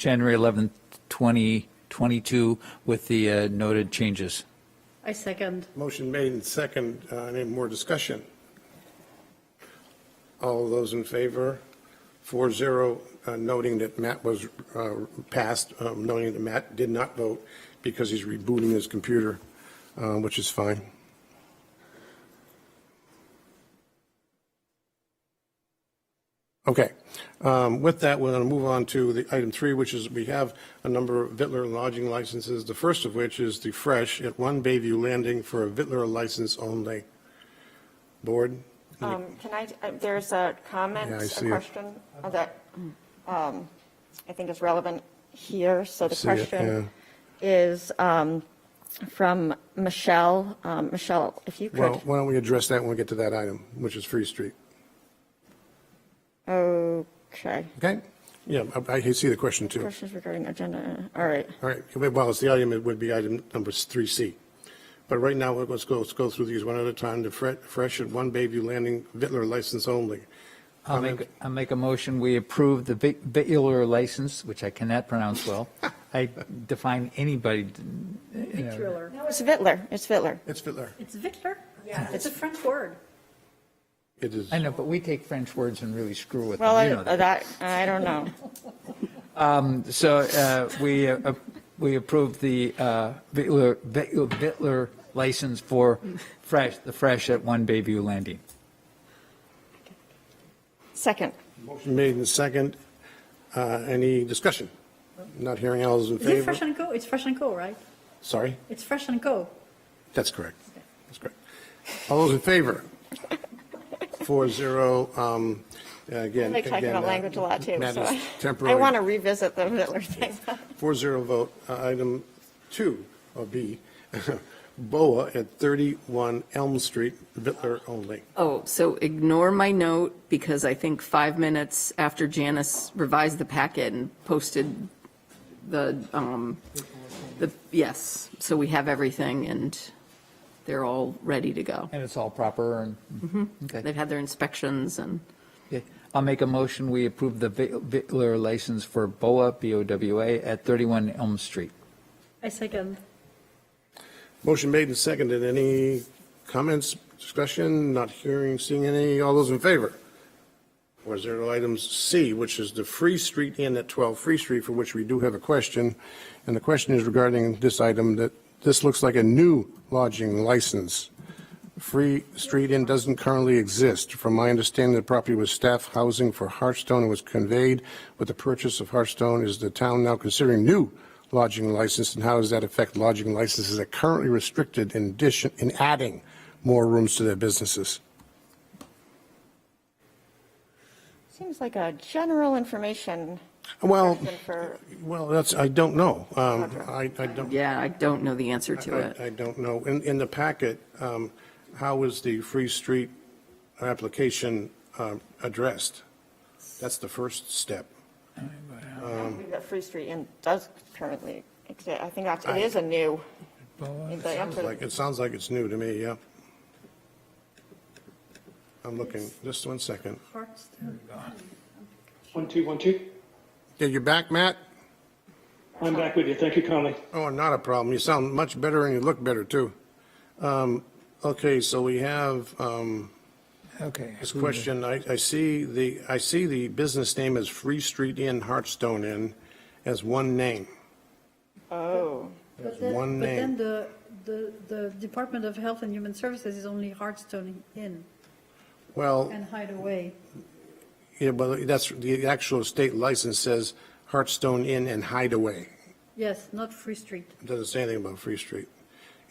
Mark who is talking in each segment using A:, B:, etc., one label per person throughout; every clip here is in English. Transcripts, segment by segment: A: January 11th, 2022, with the uh, noted changes.
B: I second.
C: Motion made and second. Uh, Any more discussion? All those in favor? Four zero, uh, noting that Matt was uh, passed, um, noting that Matt did not vote because he's rebooting his computer, uh, which is fine. Okay. Um, With that, we're going to move on to the item three, which is we have a number of Vittler lodging licenses, the first of which is the Fresh at One Bayview Landing for a Vittler license only. Board?
D: Um, Can I, uh, there's a comment,
C: Yeah, I see
D: a
C: it.
D: question that um, I think is relevant here. So the
C: see it,
D: question is um, from Michelle. Um, Michelle, if you
C: Well,
D: could,
C: why don't we address that when we get to that item, which is Free Street?
D: okay.
C: Okay? Yeah, I I see the question too.
D: Questions regarding agenda, all right.
C: All right, well, it's the item, it would be item number 3C. But right now, let's go, let's go through these one at a time. The Fre- Fresh at One Bayview Landing Vittler license only.
A: I'll make, I'll make a motion, we approve the vi- vitular license, which I cannot pronounce well. I define anybody, you know,
B: Thriller.
D: No, Oh, it's Vittler, it's Vittler.
C: It's Vittler.
B: It's Victor? Yeah. It's a French word.
C: It is.
A: I know, but we take French words and really screw with
D: Well,
A: them, you know
D: I-
A: that.
D: that, I don't know.
A: So uh, we, uh, we approved the uh, Bitler Bitler license for Fresh, the Fresh at One Bayview Landing.
D: Second,
C: Motion made in second. Uh, Any discussion? Not hearing all those in
B: Is it Fresh
C: favor?
B: and Co? It's Fresh and Co, right?
C: Sorry?
B: It's Fresh and Co.
C: That's correct. That's correct. All those in favor? Four zero. um, Again.
D: they talk
C: again,
D: about
C: uh,
D: language a lot too,
C: Matt
D: so
C: is
D: I- I
C: temporarily-
D: want to revisit the Vittler thing.
C: Four zero vote. Uh, Item two, or B, BOA at 31 Elm Street, Bitler only.
E: Oh, so ignore my note because I think five minutes after Janice revised the packet and posted the, um, the, yes, so we have everything and they're all ready to go.
A: And it's all proper and, okay.
D: Mm-hmm.
E: They've had their inspections and
A: Okay. I'll make a motion, we approve the vi- Bitler license for BOA, B-O-W-A, at 31 Elm Street.
B: I second.
C: Motion made and seconded. Any comments, discussion? Not hearing, seeing any. All those in favor? Four zero. Item C, which is the Free Street Inn at 12 Free Street, for which we do have a question. And the question is regarding this item, that this looks like a new lodging license. Free Street Inn doesn't currently exist. From my understanding, the property was staff housing for Hearthstone and was conveyed with the purchase of Hearthstone. Is the town now considering new lodging license, and how does that affect lodging licenses that are currently restricted in addition, in adding more rooms to their businesses?
D: Seems like a general information
C: Well,
D: question for
C: well, that's, I don't know. Um, I, I don't.
E: yeah, I don't know the answer to
C: I-
E: it.
C: I don't know. In, in the packet, um, how is the Free Street application um, addressed? That's the first step.
D: That Free Street Inn does currently exist. I think that's, it is a new, the
C: Sounds
D: answer-
C: Like, it sounds like it's new to me, yeah. I'm looking, just one second.
B: Hearts.
F: One, two, one, two.
C: Yeah, you back, Matt?
F: I'm back with you. Thank you, Conley.
C: Oh, not a problem. You sound much better and you look better, too. Um, Okay, so we have, um,
A: Okay.
C: This question, I, I see the, I see the business name as Free Street Inn, Hartstone Inn, as one name.
D: oh,
B: But then-
C: one
B: But then
C: name.
B: the, the, the Department of Health and Human Services is only Hearthstone Inn
C: Well,
B: and Hideaway.
C: yeah, but that's, the actual state license says Hartstone Inn and Hideaway.
B: Yes, not Free Street.
C: It doesn't say anything about Free Street.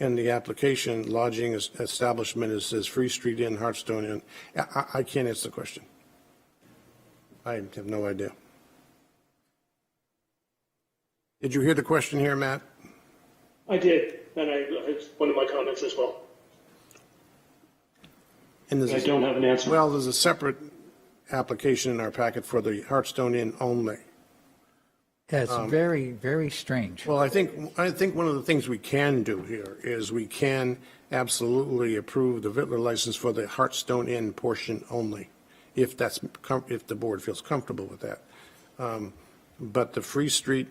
C: And the application lodging is- establishment, it says Free Street Inn, Hartstone Inn. I, I- I can't answer the question. I have no idea. Did you hear the question here, Matt?
F: I did, and I, it's one of my comments as well.
C: And there's
F: I
C: a-
F: don't have an answer.
C: Well, there's a separate application in our packet for the Hartstone Inn only.
A: That's
C: um,
A: very, very strange.
C: Well, I think, I think one of the things we can do here is we can absolutely approve the Vittler license for the Hartstone Inn portion only, if that's, com- if the board feels comfortable with that. Um, but the Free Street